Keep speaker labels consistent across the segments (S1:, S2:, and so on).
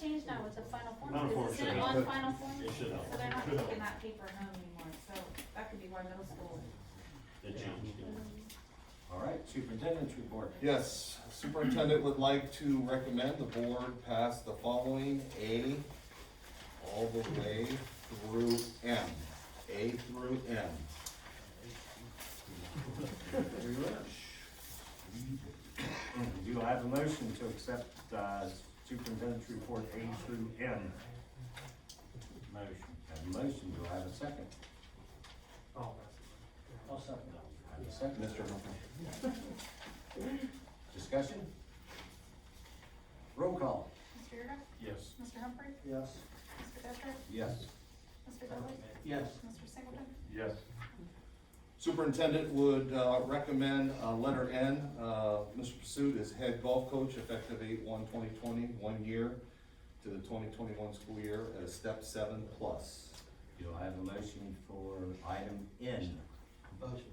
S1: changed now, it's a final form,
S2: Final form
S1: is it
S2: should be
S1: on
S2: good.
S1: final form?
S2: It should help.
S1: So they're not
S2: Should help.
S1: taking that paper home anymore, so that could be why middle school.
S2: It changed.
S3: All right, superintendent's report.
S4: Yes, superintendent would like to recommend the board pass the following A all the way through M, A through M.
S3: Very well. Do I have a motion to accept uh, superintendent's report A through M? Motion. Have a motion, do I have a second?
S5: Oh,
S3: I'll second. Have a second,
S4: Mr. Humphrey?
S3: discussion? Roll call.
S1: Mr. Yerga?
S2: Yes.
S1: Mr. Humphrey?
S5: yes.
S1: Mr. Detra?
S3: Yes.
S1: Mr. Dudley?
S5: Yes.
S1: Mr. Singleton?
S2: Yes.
S4: Superintendent would uh, recommend uh, letter N, uh, Mr. Pursuit is head golf coach effective eight one 2020, one year to the twenty twenty-one school year as step seven plus.
S3: Do I have a motion for item N?
S5: Motion.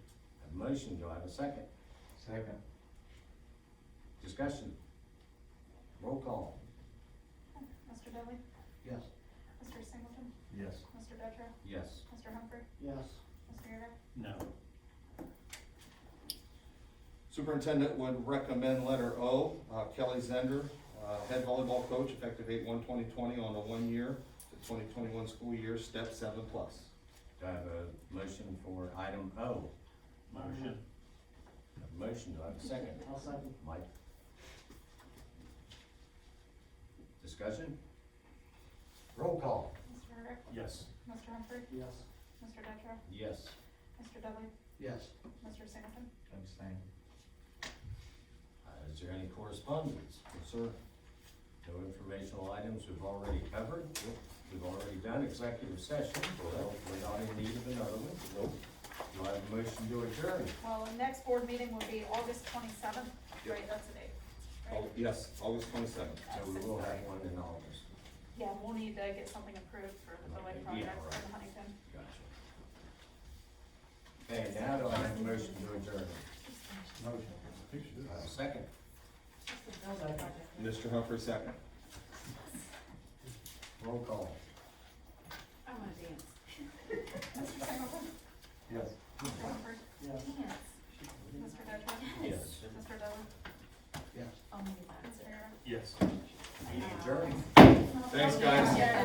S3: Have a motion, do I have a second?
S5: Second.
S3: Discussion? Roll call.
S1: Mr. Dudley?
S5: Yes.
S1: Mr. Singleton?
S2: Yes.
S1: Mr. Detra?
S3: Yes.
S1: Mr. Humphrey?
S5: Yes.
S1: Mr. Yerga?
S2: No.
S4: Superintendent would recommend letter O, uh, Kelly Zender, uh, head volleyball coach effective eight one 2020 on the one year to twenty twenty-one school year, step seven plus.
S3: Do I have a motion for item O?
S2: Motion.
S3: Have a motion, do I have a second?
S5: I'll second.
S3: Mike? Discussion? Roll call.
S1: Mr. Yerga?
S2: Yes.
S1: Mr. Humphrey?
S5: Yes.
S1: Mr. Detra?
S3: Yes.
S1: Mr. Dudley?
S5: Yes.
S1: Mr. Singleton?
S3: Abstain. Uh, Is there any correspondence?
S4: Sir?
S3: No informational items we've already covered. We've already done executive session, well, we're not in need of another one. Nope. Do I have a motion to adjourn?
S1: Well, the next board meeting will be August twenty-seventh, right, that's the date. right?
S2: Oh.
S4: Au- Oh, Yes, August twenty-seventh.
S3: So we will have one in August.
S1: Yeah, we'll need to get something approved for the
S3: Okay,
S1: building project
S3: yeah,
S1: for
S3: all right.
S1: Huntington.
S3: Gotcha. Okay, now do I have a motion to adjourn? Uh, Second.
S4: Mr. Humphrey, second.
S3: Roll call.
S1: I wanna dance. Mr. Singleton?
S3: Yes.
S1: Mr. Humphrey?
S5: Yes.
S1: Dance. Mr. Detra?
S3: Yes.
S1: Mr. Dudley?
S5: Yes.
S1: Oh, my God. Mr. Herrera?
S2: Yes.
S3: Meeting adjourned.
S4: Thanks, guys.
S1: Yeah.